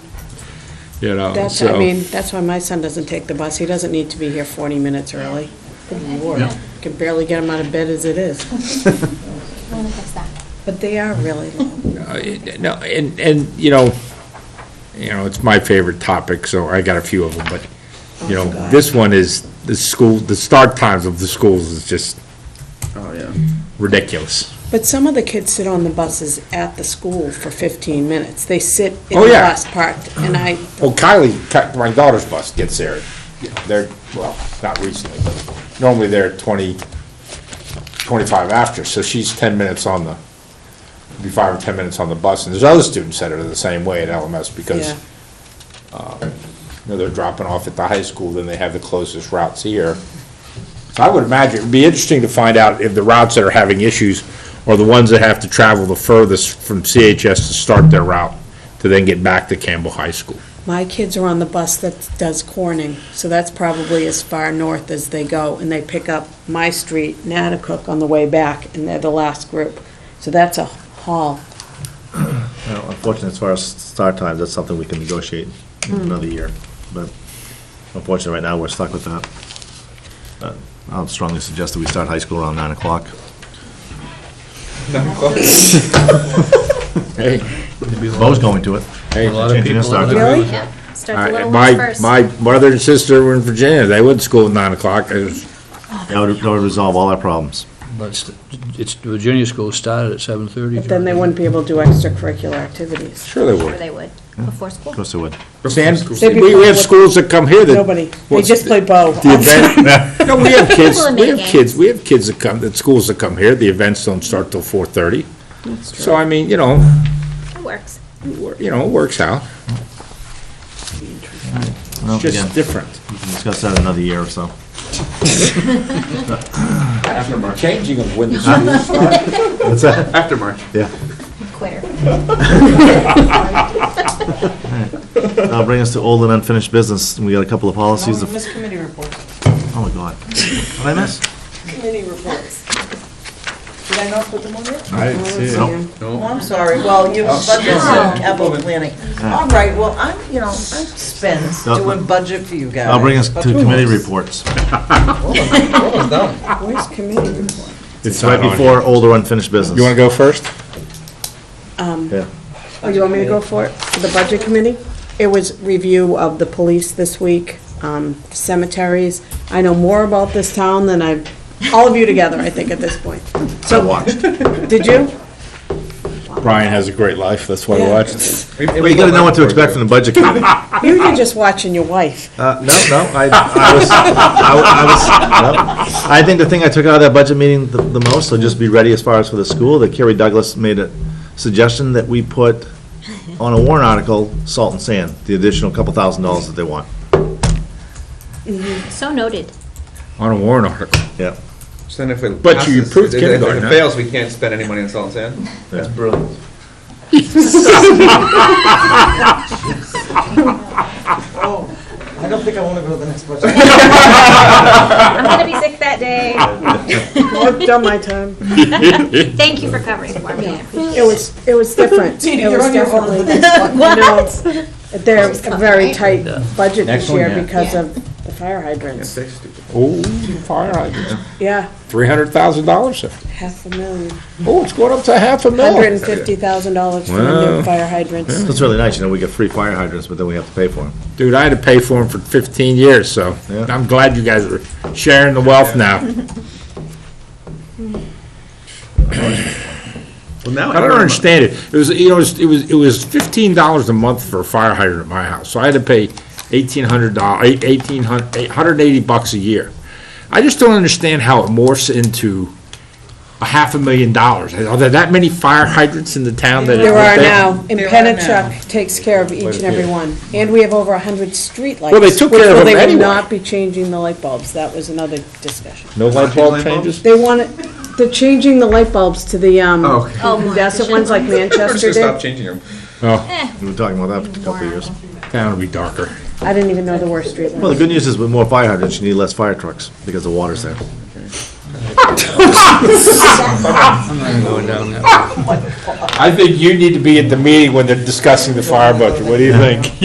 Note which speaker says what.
Speaker 1: you know,
Speaker 2: That's, I mean,
Speaker 1: Um, so.
Speaker 2: that's why my son doesn't take the bus. He doesn't need to be here 40 minutes early. Good lord. Can barely get him out of bed as it is.
Speaker 3: We'll fix that.
Speaker 2: But they are really long.
Speaker 1: uh, it- No, and, and, you know, you know, it's my favorite topic, so I got a few of them, but,
Speaker 2: Oh,
Speaker 1: you know, this one is, the school, the start times of the schools is just
Speaker 4: Oh, yeah.
Speaker 1: ridiculous.
Speaker 2: But some of the kids sit on the buses at the school for 15 minutes. They sit in
Speaker 1: Oh,
Speaker 2: the
Speaker 1: yeah.
Speaker 2: bus parked, and I,
Speaker 1: Well, Kylie, Ki- my daughter's bus gets there, they're, well, not recently, but normally they're 20, 25 after, so she's 10 minutes on the, be five or 10 minutes on the bus, and there's other students that are the same way at LMS because,
Speaker 2: Yeah.
Speaker 1: uh, you know, they're dropping off at the high school, then they have the closest routes here. So I would imagine, it'd be interesting to find out if the routes that are having issues are the ones that have to travel the furthest from CHS to start their route, to then get back to Campbell High School.
Speaker 2: my kids are on the bus that does Corning, so that's probably as far north as they go, and they pick up my street, Natticook, on the way back, and they're the last group. So that's a haul.
Speaker 4: Well, Unfortunately, as far as start times, that's something we can negotiate in another year, but unfortunately, right now, we're stuck with that. But I would strongly suggest that we start high school around nine o'clock.
Speaker 1: Hey,
Speaker 4: Bo's going to it.
Speaker 1: hey.
Speaker 5: A lot of
Speaker 4: Changing
Speaker 5: people.
Speaker 4: the start time.
Speaker 2: Really?
Speaker 3: Yep, start the
Speaker 1: I-
Speaker 3: little
Speaker 1: My,
Speaker 3: ones first.
Speaker 1: my brother and sister were in Virginia, they went to school at nine o'clock, It was-
Speaker 4: That would, that would resolve all our problems.
Speaker 5: But it's- it's, the Virginia school started at seven thirty.
Speaker 2: But then they wouldn't be able to do extracurricular activities.
Speaker 1: sure they
Speaker 3: Sure
Speaker 1: were.
Speaker 3: they would,
Speaker 1: Mm-hmm.
Speaker 3: before
Speaker 4: Of
Speaker 3: school.
Speaker 4: course it would.
Speaker 1: Sam,
Speaker 2: They'd be
Speaker 1: we, we have
Speaker 2: playing with-
Speaker 1: schools that come here that.
Speaker 2: Nobody. They
Speaker 1: What's
Speaker 2: just
Speaker 1: the-
Speaker 2: play Oh, Bo.
Speaker 1: The event, no, we have kids,
Speaker 3: People are
Speaker 1: we have
Speaker 3: making.
Speaker 1: kids, we have kids that come, that schools that come here, the events don't start till four thirty. So I mean, you know,
Speaker 3: It works.
Speaker 1: you know, it works out,
Speaker 4: Well,
Speaker 1: it's
Speaker 4: again,
Speaker 1: just different.
Speaker 4: we can discuss that in another year or so.
Speaker 1: After March. Changing of when the schools
Speaker 4: What's that?
Speaker 1: After March.
Speaker 4: Yeah.
Speaker 3: Quitter.
Speaker 4: That'll bring us to old and unfinished business. We got a couple of policies. to-
Speaker 2: Miss Committee reports.
Speaker 4: Oh, my God. What did I miss?
Speaker 2: Committee reports. Did I not put them on there?
Speaker 6: I didn't see it.
Speaker 4: Nope.
Speaker 7: Oh, I'm sorry, well, you, but this is capital planning. All right, well, I'm, you know, I spend
Speaker 4: No,
Speaker 7: doing budget for you guys.
Speaker 4: That'll bring us to
Speaker 7: But who
Speaker 4: committee
Speaker 7: knows?
Speaker 4: reports.
Speaker 2: Where's committee report?
Speaker 4: It's right before old or unfinished business.
Speaker 1: You wanna go first?
Speaker 4: Yeah.
Speaker 2: Oh, you want me to go for it? For The budget committee? It was review of the police this week, um, cemeteries. I know more about this town than I, all of you together, I think, at this point.
Speaker 4: I watched.
Speaker 2: Did you?
Speaker 1: Brian has a great life, that's why I
Speaker 2: Yeah.
Speaker 1: watched.
Speaker 4: Well, you gotta know what to expect from the budget committee.
Speaker 2: You were just watching your wife.
Speaker 4: Uh, no, no, I, I was, I was, no. I think the thing I took out of that budget meeting the, the most, so just be ready as far as for the school, that Kerry Douglas made a suggestion that we put on a warrant article, salt and sand, the additional couple thousand dollars that they want.
Speaker 3: So noted.
Speaker 1: On a warrant article.
Speaker 4: Yeah.
Speaker 6: So then if it
Speaker 1: But you
Speaker 6: passes-
Speaker 1: approved
Speaker 6: if it-
Speaker 1: kindergarten,
Speaker 6: If
Speaker 1: huh?
Speaker 6: it fails, we can't spend any money on salt and sand? That's brilliant.
Speaker 7: I don't think I want to go to the next budget.
Speaker 3: I'm gonna be sick that day.
Speaker 2: I've done my time.
Speaker 3: Thank you for covering for me.
Speaker 2: It was, it was different. It was definitely. What? They're very tight budget this year because of the fire hydrants.
Speaker 6: That's stupid.
Speaker 1: Oh, fire hydrants,
Speaker 2: Yeah,
Speaker 1: three hundred thousand dollars,
Speaker 2: half a million.
Speaker 1: oh, it's going up to half a million.
Speaker 2: Hundred and fifty thousand dollars for the new
Speaker 1: Wow.
Speaker 2: fire hydrants.
Speaker 4: That's really nice, you know, we get free fire hydrants, but then we have to pay for them.
Speaker 1: Dude, I had to pay for them for 15 years, so
Speaker 4: Yeah.
Speaker 1: I'm glad you guys are sharing the wealth now.
Speaker 6: Well, now
Speaker 1: I don't understand it. It was, you know, it was- it was, it was $15 a month for a fire hydrant at my house, so I had to pay $1,800, eight- 1,800 880 bucks a year. I just don't understand how it morphs into a half a million dollars. Are there that many fire hydrants in the town that? it-
Speaker 2: There are
Speaker 1: that-
Speaker 2: now, and
Speaker 7: There are
Speaker 2: Penachuk takes care of each and every one. And we have over a hundred streetlights.
Speaker 1: Well, they took
Speaker 2: which
Speaker 1: care of them
Speaker 2: will- They will
Speaker 1: anyway.
Speaker 2: not be changing the light bulbs, that was another discussion.
Speaker 1: No light bulb changes?
Speaker 2: They want, it- they're changing the light bulbs to the, um,
Speaker 6: Oh, okay.
Speaker 3: Oh, my.
Speaker 2: that's the ones like
Speaker 6: We're
Speaker 2: Manchester
Speaker 6: just gonna stop
Speaker 2: did.
Speaker 6: changing them.
Speaker 4: We were talking about that for a couple of years.
Speaker 1: Town will be darker.
Speaker 2: I didn't even know there were streetlights.
Speaker 4: Well, the good news is with more fire hydrants, you need less fire trucks, because the water's there.
Speaker 1: I think you need to be at the meeting when they're discussing the fire budget. What do you think?